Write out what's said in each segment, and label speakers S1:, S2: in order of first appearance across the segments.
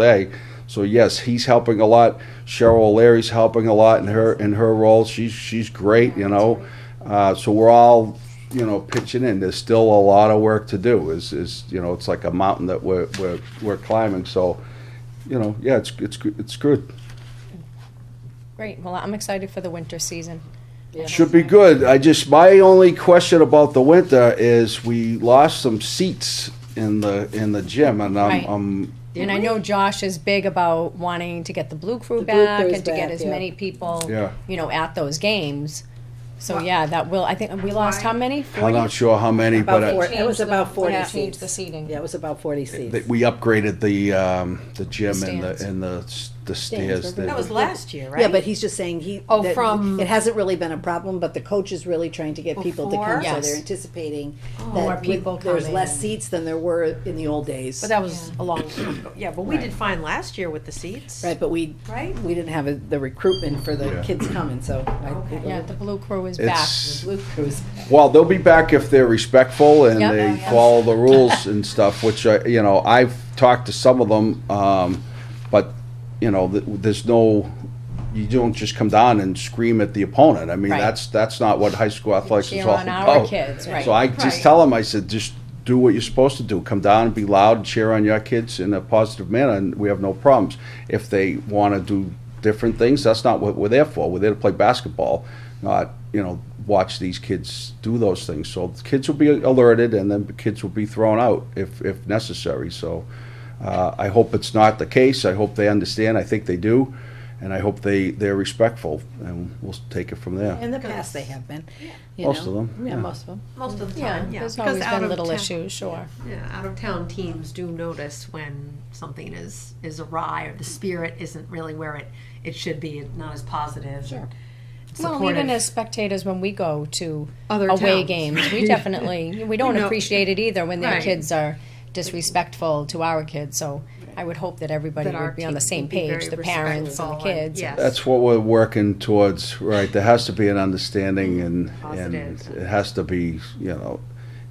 S1: day. So yes, he's helping a lot. Cheryl O'Leary's helping a lot in her in her role. She's she's great, you know. Uh, so we're all you know pitching in. There's still a lot of work to do. Is is you know it's like a mountain that we're we're we're climbing. So you know yeah, it's it's good- it's good.
S2: Great, well, I'm excited for the winter season.
S1: Should be good. I just my only question about the winter is we lost some seats in the in the gym, and I'm,
S2: Right.
S1: I'm
S2: And I know Josh is big about wanting to get the Blue Crew
S3: The Blue
S2: back
S3: Crew's
S2: and to
S3: back,
S2: get as
S3: yeah.
S2: many people,
S1: Yeah.
S2: you know, at those games. So, yeah, that will, I think, we lost how many?
S1: I'm not sure how many, but
S3: About
S1: I-
S3: four. It was about forty
S2: Yeah,
S3: seats.
S2: change the seating.
S3: Yeah, it was about forty seats.
S1: that we upgraded the um, the gym and
S2: Stands.
S1: the and the s- the stairs.
S3: remember?
S1: there.
S4: That was last year, right?
S3: Yeah, but he's just saying he.
S4: Oh,
S3: that
S4: from-
S3: It hasn't really been a problem, but the coach is really trying to get people to
S4: Before?
S3: come, so
S2: Yes.
S3: they're anticipating
S2: More
S3: that
S2: people
S3: with- there's
S2: coming
S3: less
S2: and-
S3: seats than there were in the old days.
S4: But that was a long time ago.
S5: Yeah, but we did fine last year with the seats.
S3: Right, but we,
S5: Right?
S3: we didn't have a- the recruitment for the
S1: Yeah.
S3: kids coming, so. I-
S2: Yeah, the Blue Crew is back.
S1: It's
S3: Luke, who's,
S1: well, they'll be back if they're respectful and
S2: Yep.
S1: they
S2: Oh, yeah.
S1: follow the rules and stuff. Which I, you know, I've talked to some of them, um, but you know, th- there's no. You don't just come down and scream at the opponent. I mean,
S2: Right.
S1: that's that's not what high school athletics is
S2: Cheer
S1: all
S2: on
S1: about.
S2: our kids, right.
S1: So I just
S5: Right.
S1: tell them, I said, just do what you're supposed to do. Come down and be loud and cheer on your kids in a positive manner, and we have no problems. If they want to do different things, that's not what we're there for. We're there to play basketball, not you know watch these kids do those things. So the kids will be alerted, and then the kids will be thrown out if if necessary. So. Uh, I hope it's not the case. I hope they understand. I think they do, and I hope they they're respectful, and we'll take it from there.
S3: in the past they have been, you
S1: Most
S3: know.
S1: of them,
S3: Yeah,
S1: yeah.
S3: most of them.
S5: Most of the
S2: Yeah,
S5: time, yeah.
S2: there's
S5: because
S2: always
S5: out
S2: been
S5: of
S2: little
S5: town-
S2: issues, sure.
S5: Yeah, out of town teams do notice when something is, is awry or the spirit isn't really where it, it should be, It's not as positive. Sure.
S2: Well, even as spectators, when we go to
S5: Other
S2: away
S5: towns.
S2: games, we definitely, we don't
S5: You know.
S2: appreciate it either when their
S5: Right.
S2: kids are disrespectful to our kids, so I would hope that everybody
S5: That our
S2: would be on the
S5: team
S2: same
S5: would be
S2: page,
S5: very
S2: the parents and the
S5: respectful and-
S2: kids.
S5: yes.
S1: That's what we're working towards, right? There has to be an understanding and, and
S5: Positive.
S1: it has to be, you know,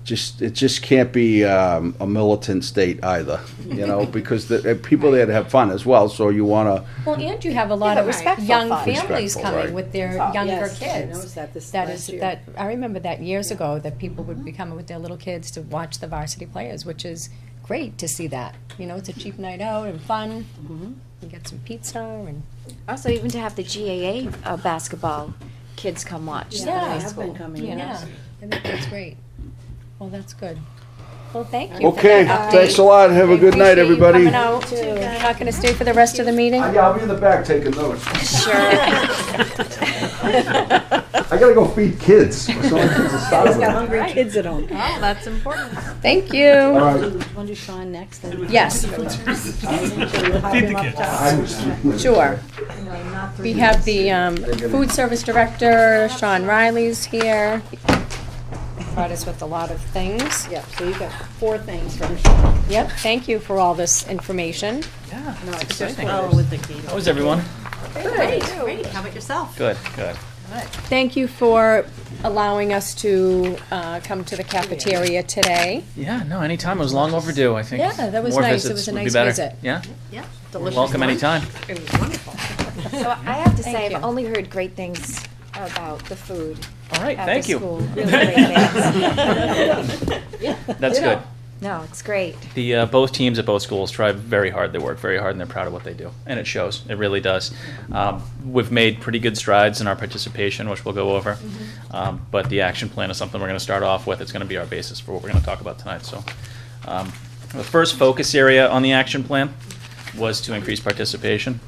S1: just, it just can't be, um, a militant state either, you know, because the, uh, people there to have fun as well, so you wanna,
S2: Well, and you have a lot
S3: Yeah,
S2: of
S3: right.
S2: respect young
S3: Respectful,
S2: families coming
S1: right.
S2: with their younger
S3: Yes, I
S2: kids.
S3: noticed that this
S2: That
S3: last
S2: is
S3: year.
S2: that I remember that years ago that people would be coming with their little kids to watch the varsity players, which is great to see that. You know, it's a cheap night out and fun.
S5: Mm-hmm.
S2: You get some pizza and
S6: Also, even to have the GAA uh, basketball kids come watch.
S2: Yeah.
S3: They
S2: Yeah.
S3: have been coming,
S2: you know, I think that's great. Well, that's good. Well, thank you. for
S1: okay,
S2: that
S1: thanks a
S2: update.
S1: lot, have a good night,
S2: Appreciate you
S1: everybody.
S2: Coming out. You're not gonna stay for the rest of the meeting?
S1: Uh, Yeah, I'll be in the back taking notes. Sure. I gotta go feed kids, so my kids are starving.
S3: Got hungry kids at home.
S5: Oh, that's important.
S2: Thank you.
S1: All right,
S3: Want to do Sean next?
S2: Yes.
S3: Feed the kids.
S1: I'm just-
S2: Sure. We have the um, food service director, Sean Riley's here. Brought us with a lot of things.
S3: Yeah, so you got four things from Sean.
S2: Yep, thank you for all this information.
S7: Yeah,
S3: No,
S7: it's
S3: it's just
S7: exciting.
S3: one.
S7: How
S5: Oh, with the key.
S7: is everyone?
S5: Great, great. How about yourself?
S7: Good, good.
S2: Thank you for allowing us to uh, come to the cafeteria today.
S7: Yeah, no, anytime. It was long overdue, I think.
S2: Yeah, that was
S7: More
S2: nice. It
S7: visits
S2: was a
S7: would be
S2: nice
S7: better.
S2: visit.
S7: Yeah,
S5: Yeah.
S7: you're
S5: Delicious
S7: welcome
S5: lunch.
S7: anytime.
S5: It was wonderful.
S6: So I have to say,
S2: Thank
S6: I've
S2: you.
S6: only heard great things about the food
S7: All right,
S6: after
S7: thank
S6: school.
S7: you.
S6: Really great things.
S7: That's good.
S6: No, it's great.
S7: The, uh, both teams at both schools try very hard. They work very hard and they're proud of what they do. And it shows. It really does. Um, we've made pretty good strides in our participation, which we'll go over.
S2: Mm-hmm.
S7: Um, but the action plan is something we're going to start off with. It's going to be our basis for what we're going to talk about tonight. So, um, the first focus area on the action plan was to increase participation.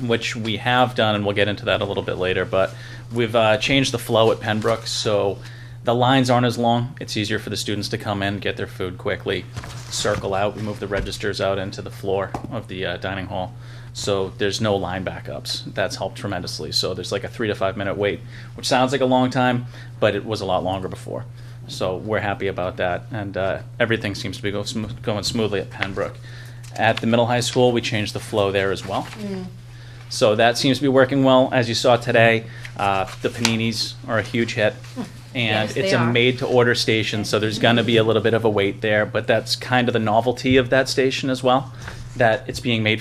S7: which we have done, and we'll get into that a little bit later. But we've uh, changed the flow at Pembroke, so the lines aren't as long. It's easier for the students to come in, get their food quickly, circle out. We move the registers out into the floor of the uh, dining hall, so there's no line backups. That's helped tremendously. So there's like a three to five minute wait, which sounds like a long time, but it was a lot longer before. So we're happy about that, and uh, everything seems to be go smooth, going smoothly at Pembroke. At the middle high school, we changed the flow there as well. So that seems to be working well. As you saw today, uh, the paninis are a huge hit. And
S5: Yes,
S7: it's
S5: they
S7: a
S5: are.
S7: made-to-order station, so there's going to be a little bit of a wait there, but that's kind of the novelty of that station as well. that it's being made